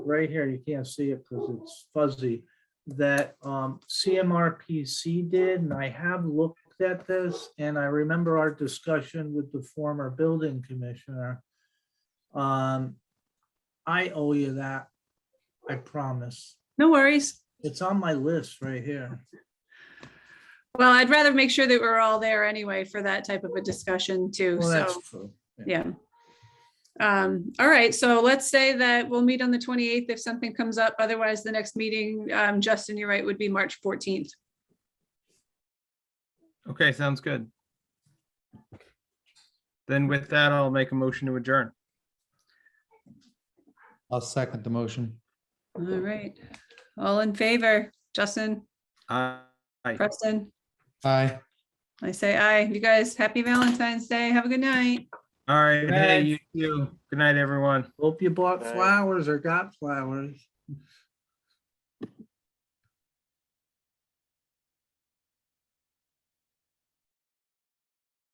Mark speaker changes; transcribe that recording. Speaker 1: right here, you can't see it because it's fuzzy, that um, CMRPC did, and I have looked at this, and I remember our discussion with the former building commissioner. Um, I owe you that, I promise.
Speaker 2: No worries.
Speaker 1: It's on my list right here.
Speaker 2: Well, I'd rather make sure that we're all there anyway for that type of a discussion too.
Speaker 1: Well, that's
Speaker 2: So,
Speaker 1: true.
Speaker 2: yeah. Um, all right, so let's say that we'll meet on the twenty-eighth if something comes up. Otherwise, the next meeting, um, Justin, you're right, would be March fourteenth.
Speaker 3: Okay, sounds good. Then with that, I'll make a motion to adjourn.
Speaker 4: I'll second the motion.
Speaker 2: All right, all in favor, Justin,
Speaker 3: Aye.
Speaker 2: Preston,
Speaker 4: Aye.
Speaker 2: I say aye. You guys, happy Valentine's Day. Have a good night.
Speaker 3: All right,
Speaker 1: Aye.
Speaker 3: hey, you too. Good night, everyone.
Speaker 1: Hope you bought flowers or got flowers.